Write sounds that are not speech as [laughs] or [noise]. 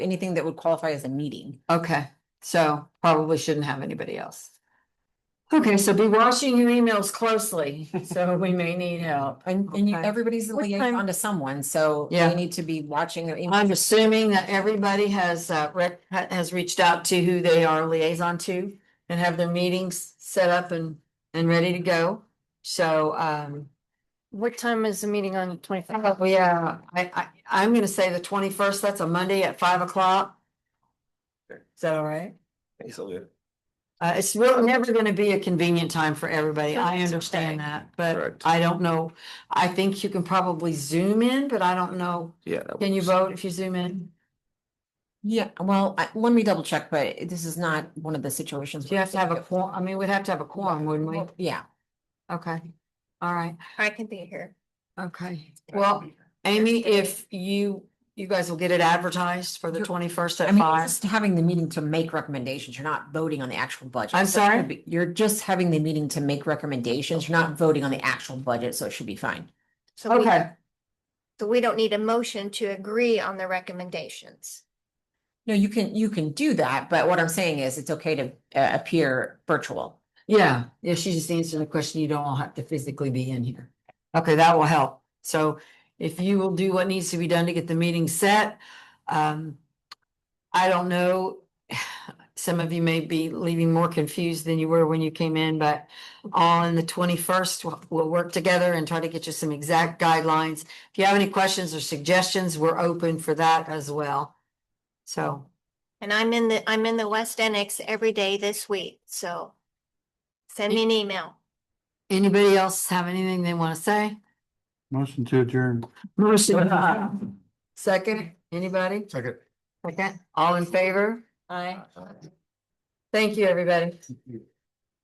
anything that would qualify as a meeting. Okay, so probably shouldn't have anybody else. Okay, so be watching your emails closely, [laughs] so we may need help. And, and you- Okay. everybody's a What liaison time- to someone, so Yeah. Uh, they need to be watching their email. I'm assuming that everybody has uh rec- ha- has reached out to who they are liaison to and have their meetings set up and and ready to go. So um, What time is the meeting on the twenty oh, fifth? yeah, I I I'm gonna say the twenty first, that's a Monday at five o'clock. Is that all right? He's all good. Uh, it's really never gonna be a convenient time for everybody. I That's understand okay. that, but Correct. I don't know. I think you can probably zoom in, but I don't know. Yeah. that Can you works. vote if you zoom in? Yeah, well, I, let me double check, but it- this is not one of the situations. Do you have to have a quorum? I mean, we'd have to have a quorum, wouldn't we? Well, Yeah, Okay, all right, I can be here. okay. Well, Amy, if you, you guys will get it advertised for the You're- twenty-first I at mean, you're five. just having the meeting to make recommendations. You're not voting on the actual budget. I'm So it should sorry? be- You're just having the meeting to make recommendations. You're not voting on the actual budget, so it should be fine. So we, Okay, so we don't need a motion to agree on the recommendations. No, you can, you can do that, but what I'm saying is it's okay to uh, appear virtual. yeah, yeah, she just answered the question. You don't all have to physically be in here. Okay, that will help. So if you will do what needs to be done to get the meeting set, um, I don't know, [sighs] some of you may be leaving more confused than you were when you came in, but on the twenty-first, we'll, we'll work together and try to get you some exact guidelines. If you have any questions or suggestions, we're open for that as well. So, And I'm in the, I'm in the West Annex every day this week, so send me an email. anybody else have anything they want to say? Motion to adjourn. Motion. Second, anybody? Second. Second, all in favor? Aye. Thank you, everybody. Thank you.